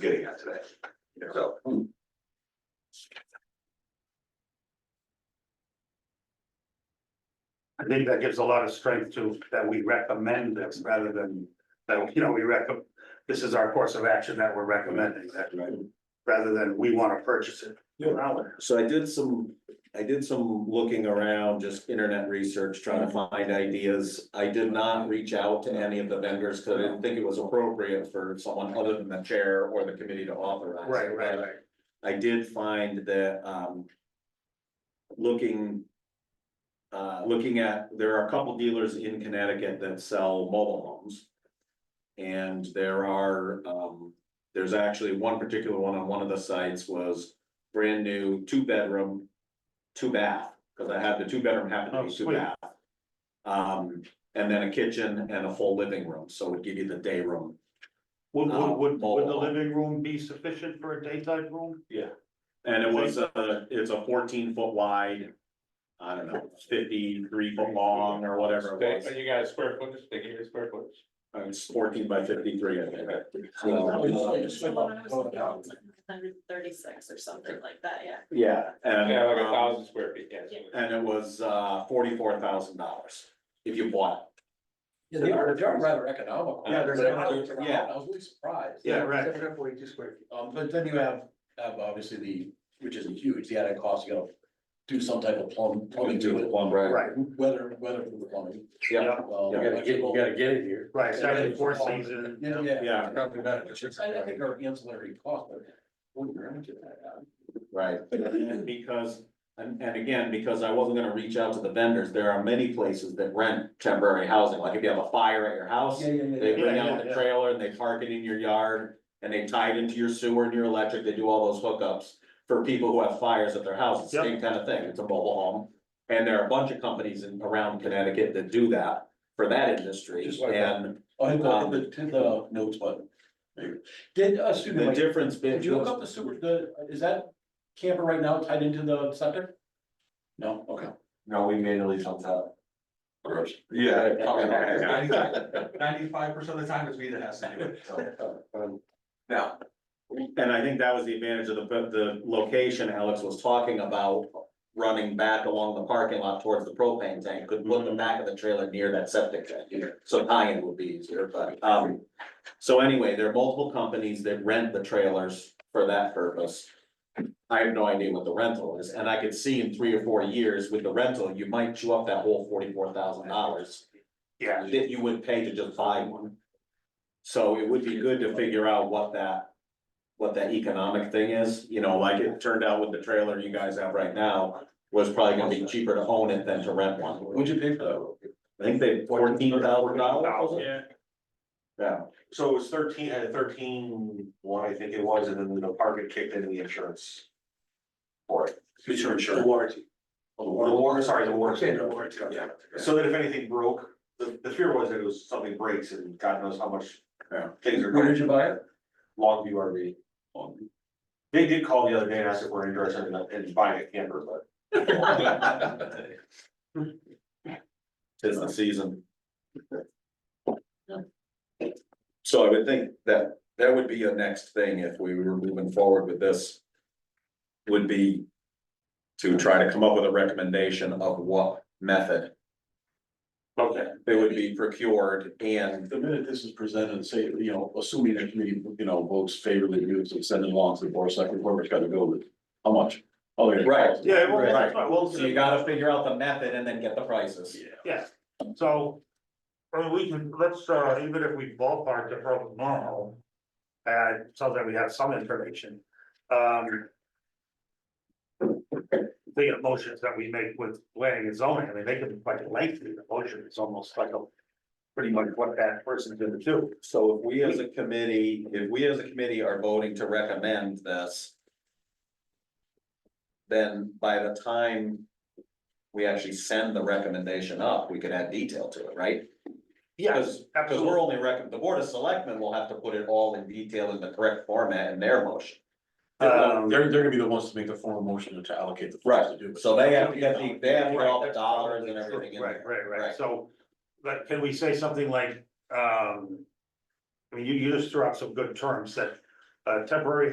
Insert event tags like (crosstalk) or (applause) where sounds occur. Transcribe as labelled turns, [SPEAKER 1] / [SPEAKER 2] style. [SPEAKER 1] getting at today. So.
[SPEAKER 2] I think that gives a lot of strength to, that we recommend this rather than, that, you know, we recommend, this is our course of action that we're recommending that, rather than we want to purchase it.
[SPEAKER 1] Yeah.
[SPEAKER 2] Now,
[SPEAKER 3] So I did some, I did some looking around, just internet research, trying to
[SPEAKER 2] Mm-hmm.
[SPEAKER 3] find ideas. I did not reach out to any of the vendors, because I didn't think it was appropriate for someone other than the chair or the committee to authorize. it.
[SPEAKER 2] Right, right, right.
[SPEAKER 3] I did find that, um. Looking. Uh, looking at, there are a couple dealers in Connecticut that sell mobile homes. And there are, um, there's actually one particular one on one of the sites was brand new, two bedroom. Two bath, because I had the two bedroom happen to
[SPEAKER 2] Oh,
[SPEAKER 3] be two
[SPEAKER 2] sweet.
[SPEAKER 3] bath. Um, and then a kitchen and a full living room, so it would give you the day room.
[SPEAKER 2] Would, would, would, would the
[SPEAKER 3] Oh.
[SPEAKER 2] living room be sufficient for a daytime room?
[SPEAKER 3] And it was a, it's a fourteen foot wide. I don't know, fifty-three foot long or whatever it was.
[SPEAKER 1] you got a square footage, they give you a square footage.
[SPEAKER 3] Uh, It's fourteen by fifty-three, I think.
[SPEAKER 4] Hundred thirty-six or something like that, yeah.
[SPEAKER 3] Yeah. And,
[SPEAKER 1] Yeah, like a
[SPEAKER 3] um,
[SPEAKER 1] thousand square feet, yes.
[SPEAKER 3] and it was uh forty-four thousand dollars if you bought
[SPEAKER 5] Yeah, they are, they are rather economical.
[SPEAKER 3] Yeah, they're-
[SPEAKER 5] I
[SPEAKER 3] yeah.
[SPEAKER 5] was really surprised.
[SPEAKER 2] Yeah, right.
[SPEAKER 5] Um, but then you have, have obviously the, which isn't huge, the added cost, you gotta do some type of plum, plumbing
[SPEAKER 3] it.
[SPEAKER 5] to it,
[SPEAKER 3] right.
[SPEAKER 2] Right,
[SPEAKER 5] weather, weather for the plumbing. Um,
[SPEAKER 3] Yeah,
[SPEAKER 5] well, electrical.
[SPEAKER 3] get it here.
[SPEAKER 2] right, seven, four season.
[SPEAKER 5] Yeah, yeah.
[SPEAKER 3] Yeah.
[SPEAKER 5] I I think our ancillary cost, but. well, you're into that,
[SPEAKER 3] Right, and because, and, and again, because I wasn't gonna reach out to the vendors, there are many places that rent temporary housing, like if you have a fire at your
[SPEAKER 5] uh,
[SPEAKER 3] house.
[SPEAKER 5] Yeah, yeah, yeah,
[SPEAKER 3] They
[SPEAKER 5] yeah.
[SPEAKER 3] bring
[SPEAKER 2] Yeah,
[SPEAKER 3] out
[SPEAKER 2] yeah,
[SPEAKER 3] the
[SPEAKER 2] yeah.
[SPEAKER 3] trailer and they park it in your yard and they tie it into your sewer and your electric, they do all those hookups. For people who have fires at their houses,
[SPEAKER 2] Yep.
[SPEAKER 3] same kind of thing, it's a mobile home. And there are a bunch of companies in, around Connecticut that do that for that industry.
[SPEAKER 5] Just like that.
[SPEAKER 3] And
[SPEAKER 5] Oh, I
[SPEAKER 3] Um,
[SPEAKER 5] got the, to the notes button. Did, uh, Susan,
[SPEAKER 3] the
[SPEAKER 5] like,
[SPEAKER 3] difference.
[SPEAKER 5] did you hook
[SPEAKER 3] between-
[SPEAKER 5] up the super, the, is that camper right now tied into the septic? No, okay.
[SPEAKER 6] No, we manually jumped out.
[SPEAKER 1] Yeah.
[SPEAKER 6] (laughs) Ninety-five percent of the time it's me that has to do it, so. Now,
[SPEAKER 3] And I think that was the advantage of the, the location Alex was talking about, running back along the parking lot towards the propane tank, could put the back of the trailer near that septic tank. So tying would be easier, but, um, so anyway, there are multiple companies that rent the trailers for that purpose. I have no idea what the rental is, and I could see in three or four years with the rental, you might chew up that whole forty-four thousand dollars
[SPEAKER 2] Yeah,
[SPEAKER 3] that you would pay to just buy one. So it would be good to figure out what that, what that economic thing is, you know, like it turned out with the trailer you guys have right now. Was probably gonna be cheaper to own it than to rent one,
[SPEAKER 5] What'd you pay for that?
[SPEAKER 3] I think they fourteen thousand dollars,
[SPEAKER 1] Yeah.
[SPEAKER 3] yeah,
[SPEAKER 6] so it was thirteen, uh, thirteen, one, I think it was, and then the department kicked in the insurance. For it.
[SPEAKER 5] The warranty.
[SPEAKER 6] The war, sorry, the war.
[SPEAKER 5] Yeah, the warranty.
[SPEAKER 6] Yeah, so that if anything broke, the, the fear was that it was something breaks and God knows how much.
[SPEAKER 3] Yeah.
[SPEAKER 6] Things are.
[SPEAKER 5] Where did you buy (laughs) it?
[SPEAKER 6] Longview RV. They did call the other day and asked if we're interested in, in buying a camper, but.
[SPEAKER 3] tis the season. So I would think that that would be a next thing if we were moving forward with this. Would be. To try to come up with a recommendation of what method
[SPEAKER 2] okay.
[SPEAKER 3] they would be procured and.
[SPEAKER 5] The minute this is presented, say, you know, assuming the committee, you know, votes favorably, you would send it along to the board of selectmen, whoever's gotta go with, it. how much? Oh, yeah.
[SPEAKER 3] Right.
[SPEAKER 2] Yeah, well,
[SPEAKER 3] Right.
[SPEAKER 2] that's right, well.
[SPEAKER 3] So you gotta figure out the method and then get the prices.
[SPEAKER 2] Yeah, so, I mean, we can, let's, uh, even if we ballpark it from tomorrow. Uh, so that we have some information, um. The motions that we make with planning and zoning, I mean, they can be quite lengthy, the motion is almost like a. Pretty much what that person's gonna do,
[SPEAKER 3] So if we as a committee, if we as a committee are voting to recommend this. Then by the time we actually send the recommendation up, we could add detail to it, right?
[SPEAKER 2] yes,
[SPEAKER 3] Because, because we're
[SPEAKER 2] absolutely,
[SPEAKER 3] only recommend, the board of selectmen will have to put it all in detail in the correct format in their motion.
[SPEAKER 2] um,
[SPEAKER 5] They're, they're gonna be the ones to make the formal motion to allocate the. funds to do it.
[SPEAKER 3] So they have to get the, they have to get all the
[SPEAKER 2] Right.
[SPEAKER 3] dollars and everything in
[SPEAKER 2] right,
[SPEAKER 3] there.
[SPEAKER 2] right, right,
[SPEAKER 3] Right.
[SPEAKER 2] so, but can we say something like, um. I mean, you, you just threw out some good terms that a temporary